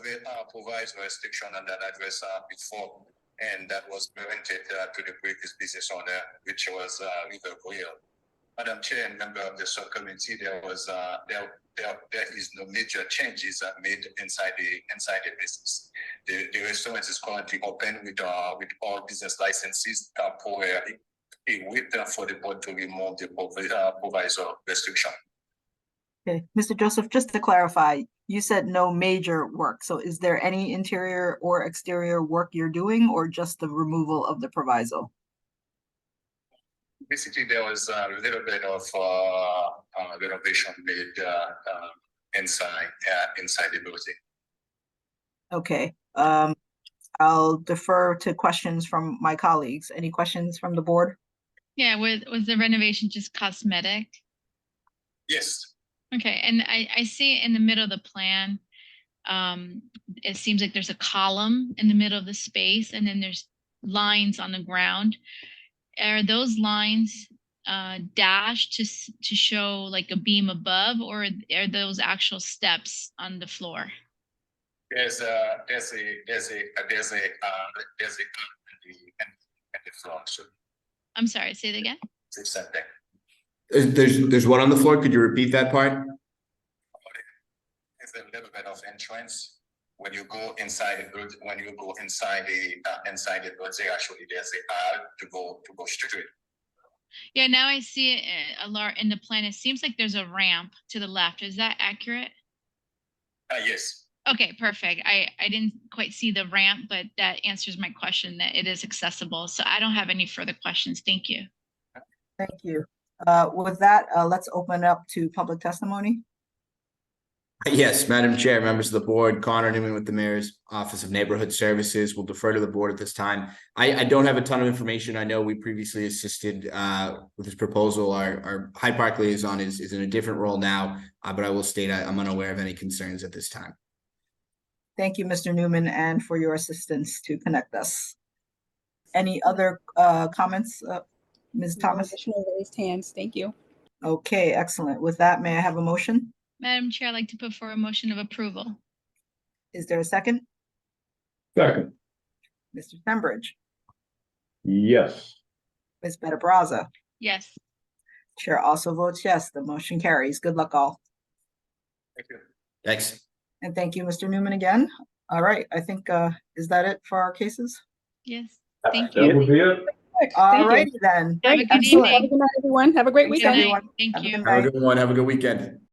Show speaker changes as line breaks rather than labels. the uh, provides restriction on that address uh, before, and that was granted uh, to the previous business owner, which was uh, River Grill. Madam Chair and member of the subcommittee, there was, uh, there, there, there is no major changes uh, made inside the, inside the business. The, the restaurant is currently open with, uh, with all business licenses, uh, for a, a waiver for the board to remove the provi- uh, proviso restriction.
Okay, Mr. Joseph, just to clarify, you said no major work, so is there any interior or exterior work you're doing or just the removal of the proviso?
basically there was a little bit of uh, uh, renovation made uh, uh, inside uh, inside the building.
Okay, um, I'll defer to questions from my colleagues. Any questions from the board?
Yeah, was, was the renovation just cosmetic?
Yes,
Okay, and I, I see in the middle of the plan, um, it seems like there's a column in the middle of the space and then there's lines on the ground. Are those lines, uh, dashed to, s- to show like a beam above or are those actual steps on the floor?
there's a there's a there's a there's a uh, there's a and the and the floor so
I'm sorry, say that again?
it's something.
There's, there's, there's one on the floor. Could you repeat that part?
There's a little bit of entrance when you go inside the building. When you go inside the uh, inside the building, actually there's a aisle to go to go straight.
Yeah, now I see it uh, a lar, in the plan, it seems like there's a ramp to the left. Is that accurate?
Uh, yes,
Okay, perfect. I, I didn't quite see the ramp, but that answers my question that it is accessible. So I don't have any further questions. Thank you.
Thank you. Uh, with that, uh, let's open up to public testimony.
Yes, Madam Chair, members of the board, Connor Newman with the Mayor's Office of Neighborhood Services will defer to the board at this time. I, I don't have a ton of information. I know we previously assisted uh with this proposal. Our, our Hyde Park liaison is, is in a different role now. Uh, but I will state I- I'm unaware of any concerns at this time.
Thank you, Mr. Newman, and for your assistance to connect us. Any other, uh, comments, uh, Ms.
No
Thomas?
Additional raised hands, thank you.
Okay, excellent. With that, may I have a motion?
Madam Chair, I'd like to put forward a motion of approval.
Is there a second?
Second,
Mr. Stenbridge,
yes.
Ms. Better Brazza.
Yes.
Chair also votes yes, the motion carries. Good luck all.
thank you.
Thanks.
And thank you, Mr. Newman, again. All right, I think, uh, is that it for our cases?
Yes.
That-
Thank
That would
you.
be it.
All
you.
righty then.
Have a good
Excellent.
Have a
evening.
good night, everyone. Have a great
Good
weekend.
night. Thank
Have a
you.
good
Have a good one. Have a good weekend.